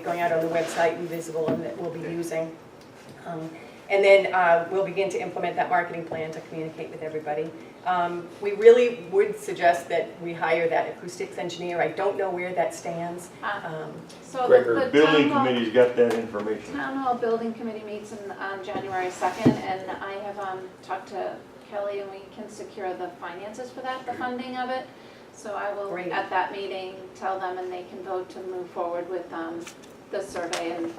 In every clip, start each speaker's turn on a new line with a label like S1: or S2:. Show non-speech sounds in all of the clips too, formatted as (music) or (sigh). S1: going out on the website and visible and that we'll be using. Um, And then uh, we'll begin to implement that marketing plan to communicate with everybody. Um, We really would suggest that we hire that acoustics engineer. I don't know where that stands.
S2: Uh,
S1: Um,
S2: So the-
S3: Gregor,
S2: the town
S3: building
S2: hall,
S3: committee's got that information.
S2: town hall building committee meets in- on January 2nd, and I have um, talked to Kelly, and we can secure the finances for that, the funding of it. So I will,
S1: Great.
S2: at that meeting, tell them, and they can vote to move forward with um, the survey and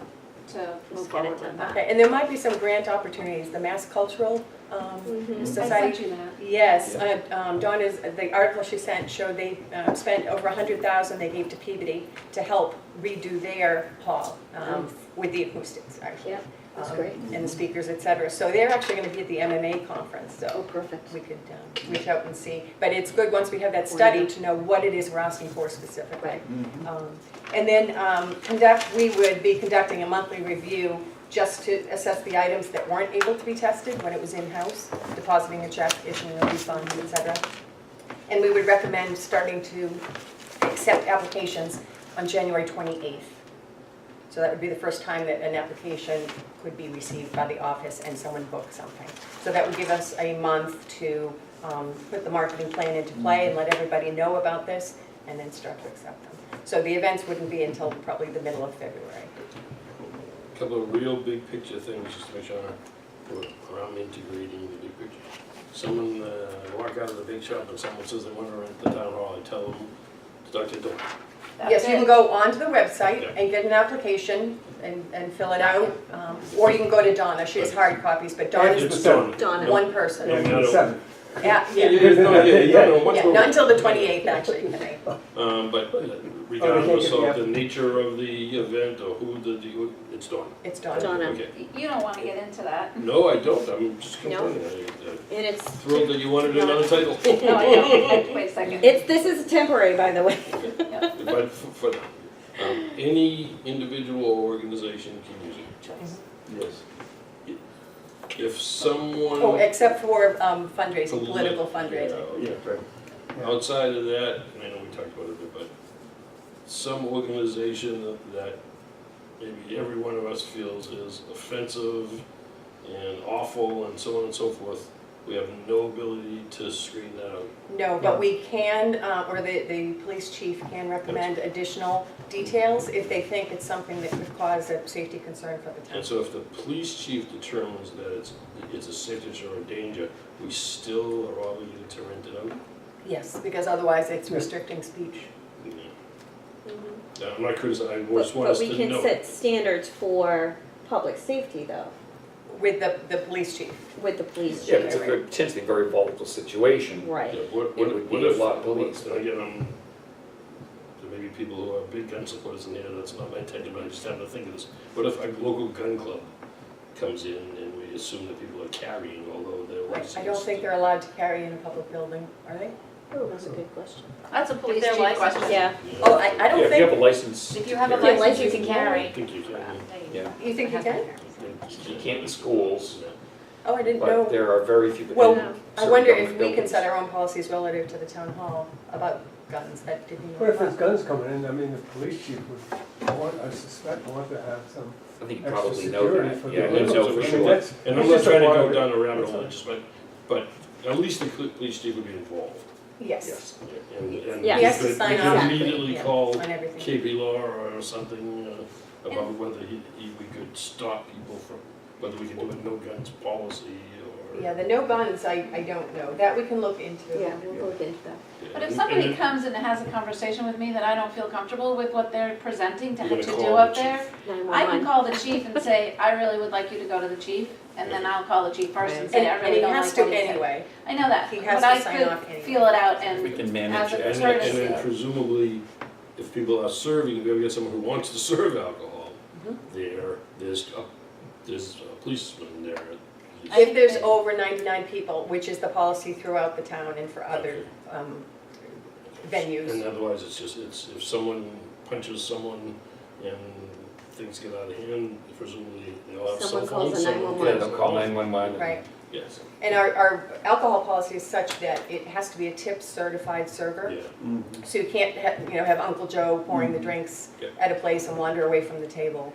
S2: to move
S4: get it
S2: forward with
S4: done.
S2: that.
S1: Okay, and there might be some grant opportunities, the Mass Cultural um,
S2: I
S1: Society.
S2: sent you that.
S1: Yes, uh, um, Donna's, the article she sent showed they um, spent over a hundred thousand they gave to Peabody to help redo their hall um, with the acoustics, actually.
S4: Yep, that's
S1: um,
S4: great.
S1: And the speakers, et cetera. So they're actually gonna be at the MMA conference,
S4: Oh,
S1: so
S4: perfect.
S1: we could um, reach out and see. But it's good, once we have that study, to know what it is we're asking for specifically.
S4: Right.
S1: Um, And then um, conduct, we would be conducting a monthly review just to assess the items that weren't able to be tested when it was in-house, depositing a check, issuing a refund, et cetera. And we would recommend starting to accept applications on January 28th. So that would be the first time that an application could be received by the office and someone booked something. So that would give us a month to um, put the marketing plan into play and let everybody know about this and then start to accept them. So the events wouldn't be until probably the middle of February.
S5: Couple of real big picture things, just to make sure we're, or I'm integrating the big picture. Someone, uh, walk out of the big shop and someone says they wanna rent the town hall, I tell them, start your door.
S1: Yes,
S2: That's
S1: you can
S2: it.
S1: go onto the website
S5: Yeah.
S1: and get an application and, and fill it out. um, Or you can go to Donna, she has hard copies, but Donna's
S5: It's
S6: the
S5: done.
S4: Donna.
S5: No,
S1: one person.
S5: Yeah. No.
S6: Seven.
S1: Yeah,
S5: Yeah,
S1: yeah,
S5: yeah, no, yeah, yeah, no, what's
S1: yeah,
S5: going
S1: not
S5: on?
S1: until the 28th, actually,
S2: (laughs)
S1: I think.
S5: Um, but uh,
S6: Oh, we
S5: regardless
S6: can't get
S5: of the nature of the event or who the, the- it's done.
S1: it's Donna.
S4: Donna.
S5: Okay.
S2: Y- You don't want to get
S1: (laughs)
S2: into that.
S5: No, I don't, I'm just
S4: No.
S5: complaining, I- I'm
S4: And it's,
S5: thrilled that you wanted another title.
S2: No, I don't. Wait a second.
S4: it's, this is temporary, by the way.
S5: But for, for, um, any individual or organization can use it.
S3: Yes.
S5: If
S1: Oh,
S5: someone
S1: except for um, fundraising, political fundraising.
S5: Yeah,
S3: Oh, Yeah, right.
S5: Outside of that, and I know we talked about it, a bit, but some organization that maybe every one of us feels is offensive and awful and so on and so forth, we have no ability to screen that out.
S1: No, but we can, uh, or the, the police chief can recommend additional details if they think it's something that could cause a safety concern for the town.
S5: And so if the police chief determines that it's, it's a signature or a danger, we still are obligated to rent it out?
S1: Yes, because otherwise it's restricting speech.
S5: No, I'm not criticizing, I
S4: But
S5: just want
S4: but
S5: us
S4: we
S5: to
S4: can
S5: know.
S4: set standards for public safety, though,
S1: With the, the police chief.
S4: with the police
S7: Yeah, it's a
S4: chief.
S7: very, potentially very volatile situation.
S5: Yeah,
S4: Right.
S5: What,
S7: It
S5: what,
S7: would
S5: what
S7: be a
S5: if,
S7: lot of police,
S5: and again, I'm, there may be people who are big gun supporters in here, that's not my intention, but I just happened to think of this. What if a local gun club comes in and we assume that people are carrying, although they're
S1: I
S5: licensed?
S1: I don't think they're allowed to carry in a public building, are they?
S4: Oh, that's a good question.
S2: That's a police
S1: they're
S2: chief
S1: licensed.
S2: question.
S4: Yeah,
S5: Yeah.
S1: Oh, I, I
S7: Yeah,
S1: don't
S7: if you have a
S1: think,
S7: license.
S2: If you have a
S7: yeah.
S2: license, you can
S5: I
S2: carry.
S5: think you can.
S7: Yeah,
S1: you think you can?
S7: you can't in schools,
S1: Oh, I didn't
S7: but
S1: know.
S7: there are very few.
S1: Well,
S7: in
S1: I
S7: certain
S1: wonder if
S7: government
S1: we can
S7: buildings.
S1: set our own policies relative to the town hall about guns that didn't.
S6: Well, if there's guns coming in, I mean, the police chief would want, I suspect, want to have some
S7: I think you
S6: extra
S7: probably know
S6: security for
S7: that,
S6: the.
S7: yeah, you know for
S6: I mean,
S7: sure.
S6: that's-
S5: And
S6: that's
S5: I'm not
S6: just a
S5: trying to
S6: part
S5: go
S6: of it.
S5: down a rabbit
S6: That's
S5: hole,
S6: all.
S5: just, but, but at least the cl- police chief would be involved.
S1: Yes.
S5: Yeah, And, and.
S4: Yeah.
S5: we
S1: He has to
S5: could-
S1: sign
S5: We
S1: off.
S5: could immediately
S1: Yeah,
S5: call
S1: on everything.
S5: KB Law or something uh, about whether he, he- we could stop people from, whether we could do a no guns policy or.
S1: Yeah, the no guns, I, I don't know. That we can look into.
S4: yeah, we'll look into that.
S5: Yeah,
S2: But if
S5: and-
S2: somebody
S5: and
S2: comes and has a conversation with me that I don't feel comfortable with what they're presenting to,
S5: You're
S2: to
S5: gonna
S2: do
S5: call
S2: up
S5: the
S2: there, I can
S4: 911.
S2: call the chief and say, I really would like you to go to the chief, and then I'll call the chief first and
S4: Right.
S2: say,
S1: And,
S2: I
S1: and
S2: really
S1: he
S2: don't like what he
S1: has to
S2: said."
S1: anyway.
S2: I know that,
S1: He has
S2: but
S1: to
S2: I
S1: sign off
S2: could
S1: anyway.
S2: feel it out
S7: We
S2: and,
S7: can
S2: as
S7: manage
S2: a
S7: it.
S5: And, and
S2: courtesy.
S5: then presumably, if people are serving, we have got someone who wants to (laughs) serve alcohol
S1: Mm-hmm.
S5: there, there's, a- there's a policeman there.
S2: I-
S1: If there's over 99 people, which is the policy throughout the town and for other um,
S5: And
S1: venues.
S5: otherwise, it's just, it's, if someone punches someone and things get out of hand, presumably they'll have cell
S4: Someone calls
S5: phones.
S4: the
S5: someone
S4: 911.
S7: Yeah, they'll call nine one one.
S1: Right.
S5: yes,
S1: And our, our alcohol policy is such that it has to be a tip certified server.
S5: yeah.
S3: Mm-hmm.
S1: So you can't, ha- you know, have Uncle Joe pouring the drinks
S5: Yeah.
S1: at a place and wander away from the table.